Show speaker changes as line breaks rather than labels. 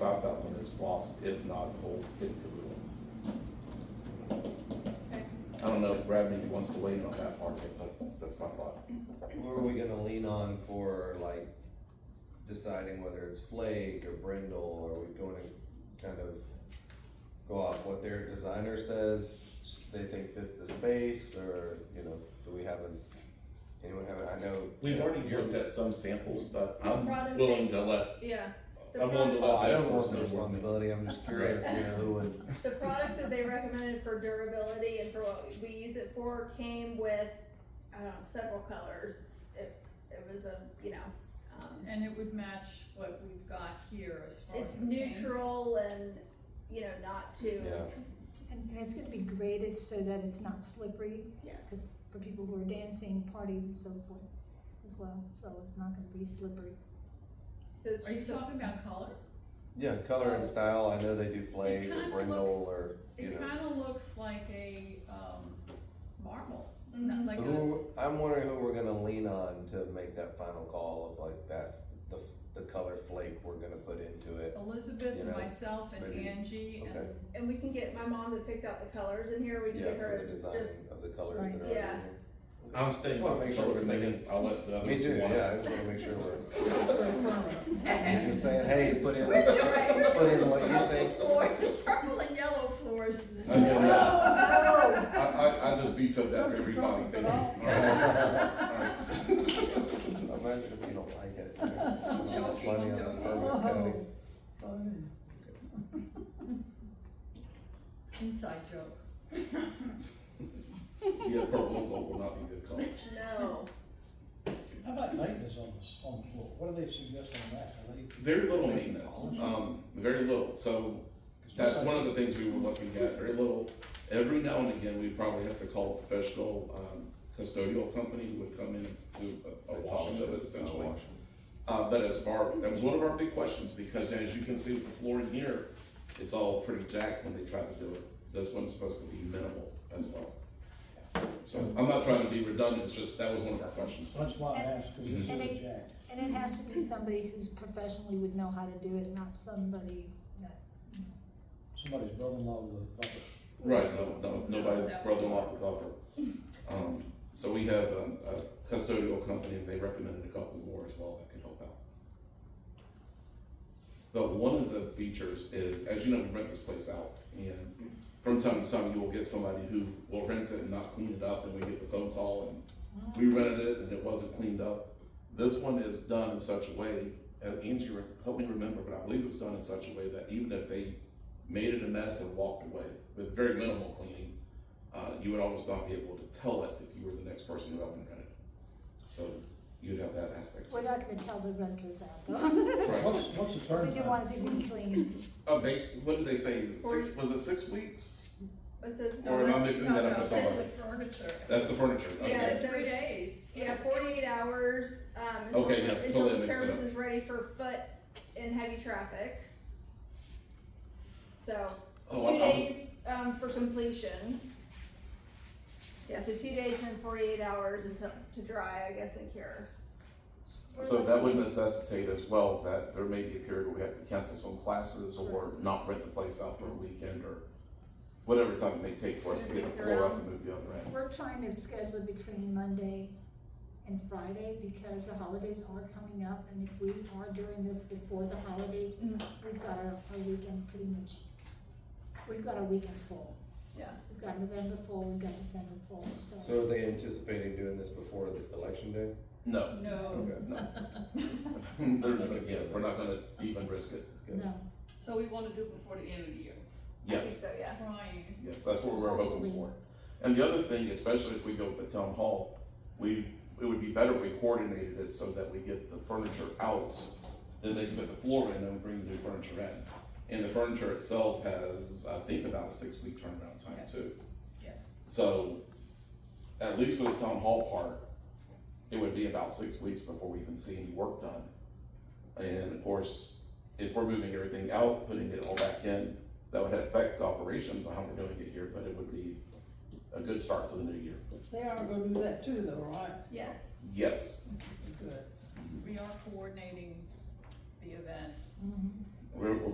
Five thousand is lost, if not the whole kit and caboodle.
Okay.
I don't know if Brad maybe wants to weigh in on that part, yet, but that's my thought.
What are we gonna lean on for like deciding whether it's Flake or Brindle? Are we going to kind of go off what their designer says they think fits the space, or you know, do we have a anyone have a, I know
We've already looked at some samples, but I'm
Product-
willing to let,
Yeah, The
I'm willing to
Oh, I
let
don't
that
want
person know what
the
they-
responsibility. I'm just curious, you know, who would
the product that they recommended for durability and for what we use it for came with, I don't know, several colors. It, it was a, you know, um,
And it would match what we've got here as far as.
it's
the paint.
neutral and, you know, not too.
yeah.
And and it's gonna be graded so that it's not slippery
Yes.
for people who are dancing, parties and so forth as well, so it's not gonna be slippery.
So it's
Are you
just, a-
talking about color?
Yeah, color and style. I know they do Flake
It
or
kinda
Brindle
looks-
or you
It
know.
kinda looks like a, um, marble, not
Mhm.
like a,
Oh.
Who, I'm wondering who we're gonna lean on to make that final call of like that's the the color Flake we're gonna put into it.
Elizabeth
you
and
know,
myself and
maybe-
Angie and,
okay.
and we can get, my mom that picked out the colors in here, we can
Yeah,
get
for the
her
design
just,
of the colors that
Right.
are already in
Yeah.
here.
I'm staying
Just wanna
with the
make sure
color,
we're
and then I'll let the
Me
others.
too,
want it.
yeah, I just wanna make sure we're. You're just saying, hey, put in,
We're trying- we're
put in what you
purple
think.
floor, purple and yellow floors.
Okay, Oh, yeah. I, I, I just vetoed that for everybody.
process at
Imagine if you don't like it. you know,
I'm
it's not
joking,
funny
I'm
on the
joking.
program, kind of.
Inside joke.
Yeah, purple and gold will not be good colors.
no.
How about maintenance on the, s- on the floor? What do they suggest on that? Are they?
Very little maintenance, um, very little, so that's one of the things we were looking at, very little. Every now and again, we probably have to call a professional, um, custodial company who would come in and do a- a washing of it essentially. Uh, but as far, that was one of our big questions, because as you can see with the floor in here, it's all pretty jacked when they try to do it. This one's supposed to be minimal as well. So I'm not trying to be redundant, it's just, that was one of our questions.
That's why I asked, cause this is
And it-
jacked.
And it has to be somebody who's professionally would know how to do it, not somebody that, you know,
Somebody's brother-in-law with a bucket.
Right, no, no, nobody's brother-in-law for golfer. Um, so we have um, a custodial company, and they recommended a couple more as well that could help out. But one of the features is, as you know, we rent this place out, and from time to time, you will get somebody who will rent it and not clean it up, and we get the phone call, and we rented it and it wasn't cleaned up. This one is done in such a way, uh, Angie, re- help me remember, but I believe it was done in such a way that even if they made it a mess and walked away with very minimal cleaning, uh, you would almost not be able to tell it if you were the next person who up and rented. So you'd have that aspect.
we're not gonna tell the renters out though.
Right.
What's, what's the
We
turn
do
time?
want it to be clean.
Uh, base, what did they say? Six, was it six weeks?
It says,
Or am I
that's-
mixing that
no,
up with
no, that's
somebody?
the furniture.
That's the furniture.
They
Yeah,
Okay.
said
so
three
it's-
days.
yeah, forty-eight hours, um, until,
Okay, yeah,
the- until
totally
the
mixed it
service
up.
is ready for foot and heavy traffic. So,
Oh, I-
two
I was-
days, um, for completion. Yeah, so two days and forty-eight hours until, to dry, I guess, and cure.
So that would necessitate as well that there may be a period where we have to cancel some classes or not rent the place out for a weekend or whatever time it may take for us to get a floor up and move the other end.
We're trying to schedule it between Monday and Friday because the holidays are coming up and if we are doing this before the holidays,
Mm.
we've got our, our weekend pretty much, we've got our weekends full.
Yeah.
We've got November full, we've got December full, so.
So are they anticipating doing this before the election day?
No,
No.
Okay.
no. There's, no- yeah, we're not gonna even risk it.
No,
So we want to do it before the end of the year.
I think
Yes,
So, yeah.
Trying.
yes, that's what we're hoping for. And the other thing, especially if we go with the town hall, we, it would be better if we coordinated it so that we get the furniture out. Then they can put the floor in, then we bring the new furniture in. And the furniture itself has, I think, about a six-week turnaround time
Yes.
too.
Yes.
So, at least for the town hall part, it would be about six weeks before we even see any work done. And of course, if we're moving everything out, putting it all back in, that would affect operations on how we're doing it here, but it would be a good start to the new year.
They are gonna do that too though, right?
Yes.
Yes,
Good.
We are coordinating the events.
Mhm.
we're, we're